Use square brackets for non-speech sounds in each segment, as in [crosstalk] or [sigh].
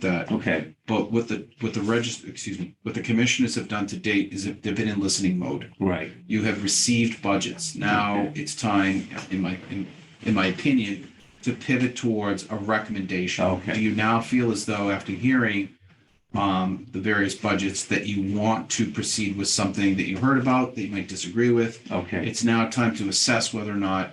that. Okay, But what the, what the register, excuse me, what the commissioners have done to date is that they've been in listening mode. right, You have received budgets. Now it's time, in my, in, in my opinion, to pivot towards a recommendation. Okay. Do you now feel as though after hearing, um, the various budgets that you want to proceed with something that you heard about that you might disagree with? okay, It's now time to assess whether or not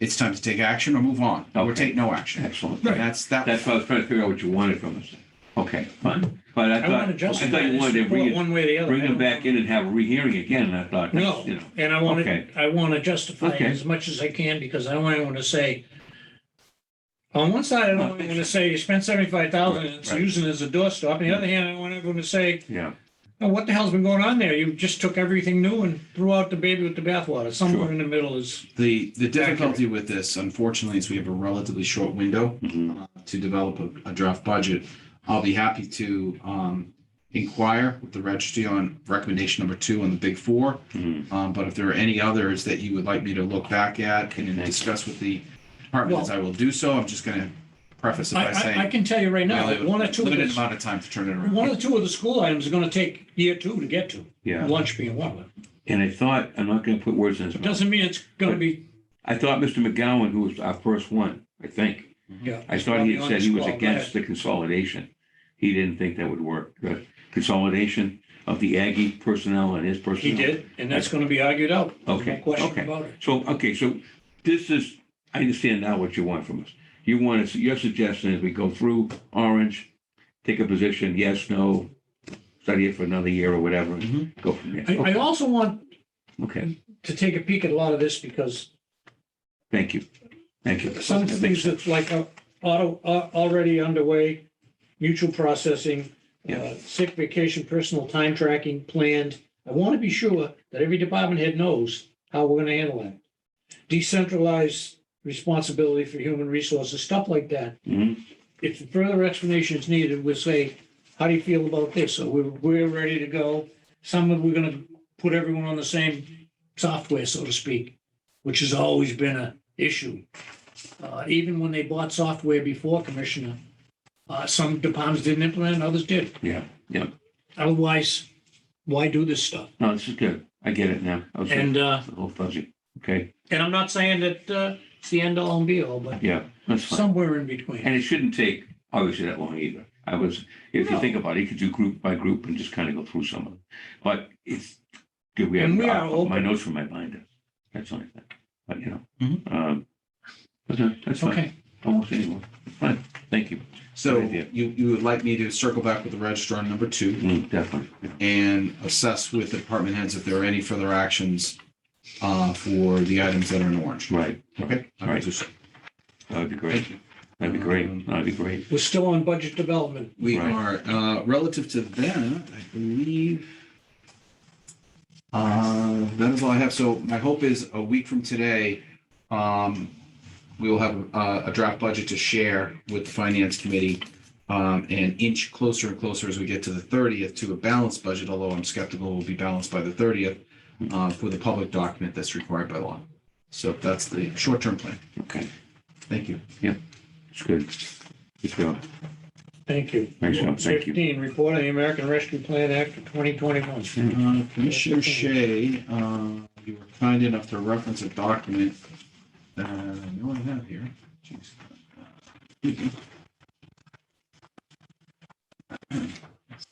it's time to take action or move on or Okay. take no action. excellent. And That's, that, That's why I was trying to figure out what you wanted from us. Okay, fine, but I I want to thought, I justify thought you this wanted to report bring it, one way or the other. bring I them don't- back in and have a rehearing again, and I thought, that's, No, you know, and I want Okay. to, I want to justify it Okay. as much as I can because I don't want to say, on one side, I don't want to say you spent seventy-five thousand and it's Right, right. using it as a doorstop. On the other hand, I want everyone to say, yeah, oh, what the hell's been going on there? You just took everything new and threw out the baby with the bathwater. Somewhere Sure. in the middle is, the, the difficulty with this, unfortunately, is we have a relatively short window. mhm, uh, to develop a, a draft budget. I'll be happy to um, inquire with the registry on recommendation number two on the big four. mhm. Um, but if there are any others that you would like me to look back at and Thank you. discuss with the departments, I will do so. I'm just going to preface it I, by I, I saying. can tell you right we now, only have that a one or two, of Limited the- amount of time to turn it one around. or two of the school items are going to take year two to get to. yeah. Lunch being one of them. And I thought, I'm not gonna put words in his It mouth. doesn't mean it's going to be, I thought Mr. McGowan, who was our first one, I think, yeah. I thought he had said he was Well, against the consolidation. He didn't think that would work, the consolidation of the Aggie personnel and his He personnel. did, and that's going to be argued out. There's Okay, No question okay. about it. So, okay, so this is, I understand now what you want from us. You want us, your suggestion is we go through Orange, take a position, yes, no, study it for another year or whatever, and go from there. I, Mm-hmm. I also want Okay, to take a peek at a lot of this because thank you. Thank you. some That makes things that's like uh, auto, uh, already underway, mutual processing, Yeah. uh, sick vacation, personal time tracking planned. I want to be sure that every department head knows how we're going to handle that. Decentralized responsibility for human resources, stuff like that. Mhm. if further explanation is needed, we'll say, how do you feel about this? So we're, we're ready to go. Some of, we're gonna put everyone on the same software, so to speak, which has always been a issue. Uh, even when they bought software before, Commissioner, uh, some departments didn't implement, others did. Yeah, yeah. Otherwise, why do this stuff? No, this is good. I get it now. I was a And, uh, little fuzzy. Okay, and I'm not saying that, uh, it's the end all and be all, but yeah, that's fine. somewhere in between. And it shouldn't take, obviously, that long either. I was, if you No. think about it, you could do group by group and just kind of go through some of them. But it's, good, we have, And we are I- my open. notes from my binder. That's the only thing, but you know. Mhm. um, Okay, that's fine. Mm-hmm. Okay, Almost anyone. Fine, thank you. So Good idea. you, you would like me to circle back with the registrar on number two Mm, Definitely. yeah. and assess with the department heads if there are any further actions uh, for the items that are in orange. Right, Okay. I will Right. do so. that'd be Thank great. you. That'd be Um, great. That'd be great. we're still on budget development. We are, Right. uh, relative to that, I believe. Uh, that is all I have. So my hope is a week from today, um, we will have uh, a, a draft budget to share with the finance committee. Um, and inch closer and closer as we get to the thirtieth to a balanced budget, although I'm skeptical we'll be balanced by the thirtieth, uh, for the public document that's required by law. So that's the short-term plan. Okay, Thank you. it's good. Good job. Thank you. Thanks, John. Thank you. Fifteen, report on the American Rescue Plan Act of twenty twenty-one. Hmm. Uh, Commissioner Shea, uh, you were kind enough to reference a document that I know I have here. Jeez.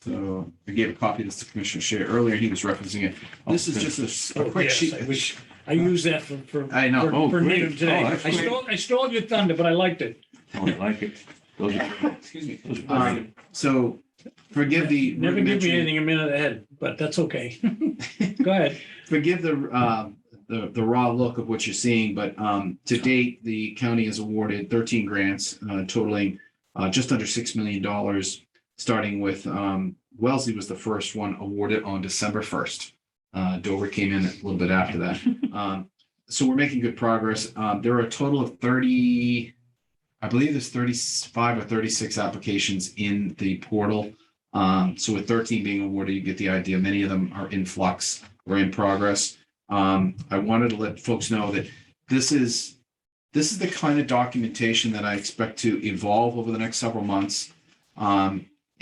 So I gave a copy of this to Commissioner Shea earlier. He was referencing it. This is just a s- a Oh, quick yes, sheet. I wish- I used that for, for. I know. for- Oh, For great. Needham today. Oh, that's I great. stole, I stole your thunder, but I liked it. Oh, I like it. Those [laughs] are, Excuse me. those are great. Um, So forgive the. Never give me rudimentary- anything a minute ahead, but that's okay. [laughs] Go ahead. forgive the, um, the, the raw look of what you're seeing, but, um, to date, the county has awarded thirteen grants, uh, totaling, uh, just under six million dollars, starting with, um, Wellesley was the first one awarded on December first. Uh, Dover came in a little bit after that. Um, so we're making good progress. Um, there are a total of thirty, I believe there's thirty-five or thirty-six applications in the portal. Um, so with thirteen being awarded, you get the idea. Many of them are in flux we're in progress. Um, I wanted to let folks know that this is, this is the kind of documentation that I expect to evolve over the next several months. Um,